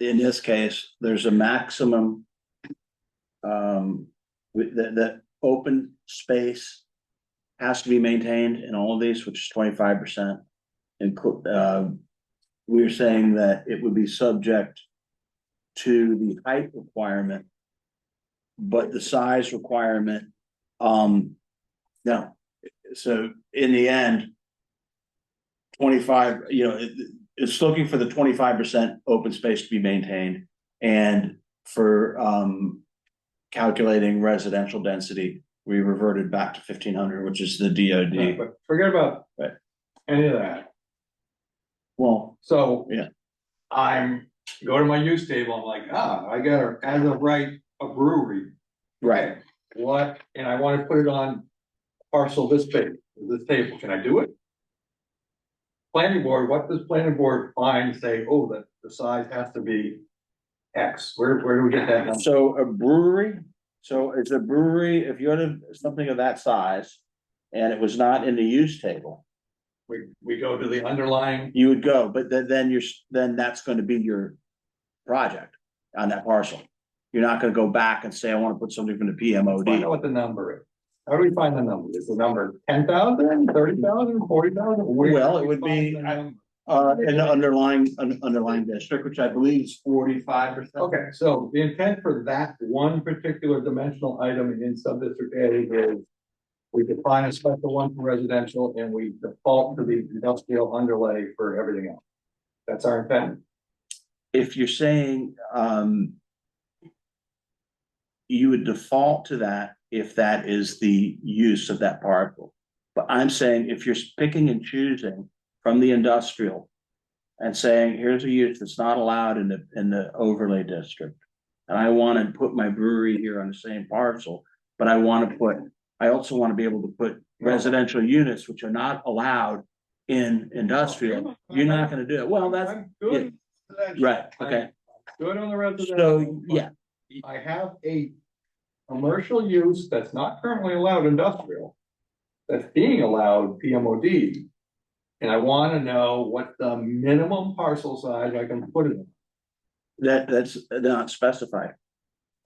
in this case, there's a maximum. Um, with the, the open space. Has to be maintained in all of these, which is twenty-five percent. And, uh, we're saying that it would be subject. To the height requirement. But the size requirement, um, no, so in the end. Twenty-five, you know, it, it's looking for the twenty-five percent open space to be maintained and for um. Calculating residential density, we reverted back to fifteen hundred, which is the Yeah, DOD. But forget about Right. any of that, Well, so. Yeah. I'm, go to my use table, I'm like, ah, I gotta, as of right, a brewery. right, What, and I wanna put it on parcel this big, this table, can I do it? Planning board, what does planning board find, say, oh, that the size has to be X, where, where do we get that? number? so a brewery, so it's a brewery, if you had a- something of that size. And it was not in the use table, We, we go to the underlying, you would go, but then then you're, s- then that's gonna be your. Project on that parcel, you're not gonna go back and say, I wanna put something from the find out PMOD. what the number is. How do we find the number? Is the number ten thousand, thirty thousand, forty thousand? Well, it would be- Uh, in the underlying, un- underlying district, which I believe is forty-five percent. Okay, so the intent for that one particular dimensional item in sub-district A is. We define a special one for residential and we default to the industrial underlay for everything else. That's our intent. if you're saying, um. You would default to that if that is the use of that parcel. But I'm saying if you're picking and choosing from the industrial. And saying, here's a use that's not allowed in the, in the overlay district. And I wanna put my brewery here on the same parcel, but I wanna put, I also wanna be able to put residential units which are not allowed. In industrial, you're not gonna do it. Well, that's, I'm good on residential. right, okay. I'm Good on the So, residential. but yeah, I have a commercial use that's not currently allowed industrial. That's being allowed PMOD. And I wanna know what the minimum parcel size I can put it in. that, that's not specified.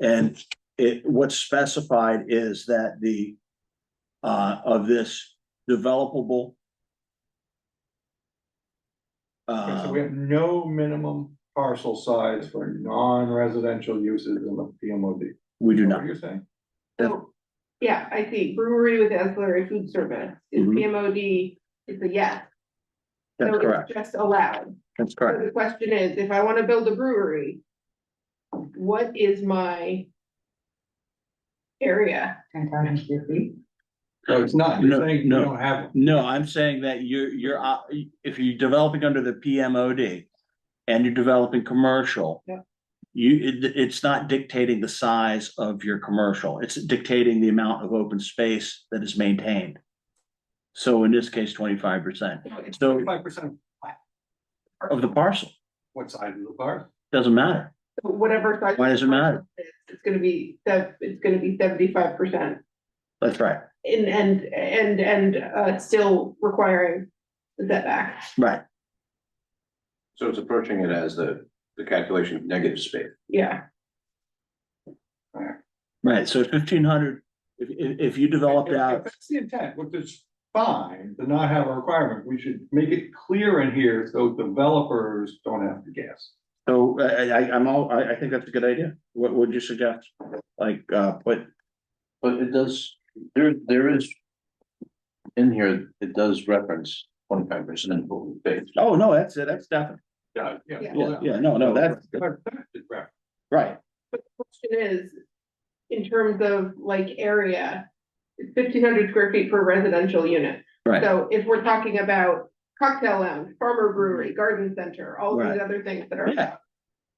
And it, what's specified is that the, uh, of this developable. Okay, Uh, So we have Um. no minimum parcel size for non-residential uses in the PMOD. Is we do that What not, you're saying? So, yeah, I see brewery with ancillary food service, is Mhm. PMOD, it's a yes. that's So correct, it's just allowed. that's So correct. the question is, if I wanna build a brewery, what is my area? Ten thousand square feet. So it's not, you're No, saying you no. don't have, one. No, I'm saying that you're, you're, uh, if you're developing under the PMOD and you're developing commercial. Yeah. You, it, it's not dictating the size of your commercial, it's dictating the amount of open space that is maintained. So in this case, twenty-five percent it's So- twenty-five percent of the parcel, what size of the bar? doesn't matter, So Whatever. size Why does it matter? it is, It's gonna be, that, it's gonna be seventy-five percent that's right, and, and, and, and, uh, still requiring the setback. right, So it's approaching it as the, the calculation of negative space. Yeah, right, so fifteen hundred, if, if, if you developed If- if out, That's the intent, which is fine, to not have a requirement, we should make it clear in here so developers don't have to guess. so I, I, I- I'm all, I, I think that's a good idea, what would you suggest? Like, uh, put But it does, there, there is. In here, it does reference twenty-five percent open space. oh, no, that's it, that's definitely, Yeah, yeah. Yeah. yeah, yeah, no, no, that's, right, question is, in terms of like area, it's fifteen hundred square feet per residential unit. right. Mm-hmm. So if we're talking about cocktail lounge, farmer brewery, garden center, all Right. these other things that are. Yeah.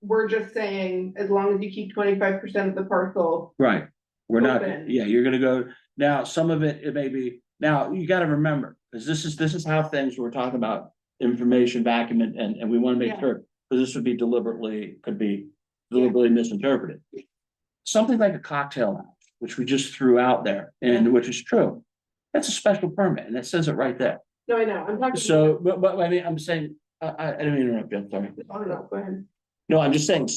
We're just saying, as long as you keep twenty-five percent of the parcel, Right, we're not, Open. yeah, you're gonna go, now, some of it, it may be, now, you gotta remember, cause this is, this is how things we're talking about. Information vacuum and, and, and we wanna make Yeah. sure, cause this would be deliberately, could be deliberately misinterpreted. Something like a cocktail lounge, which we just threw out there, and which is true, that's a special permit, and it says it right there. no, I know, I'm talking. So, but, but, I mean, I'm saying, I, I, I didn't mean to interrupt you, I'm sorry. I don't know, go ahead. No, I'm just saying,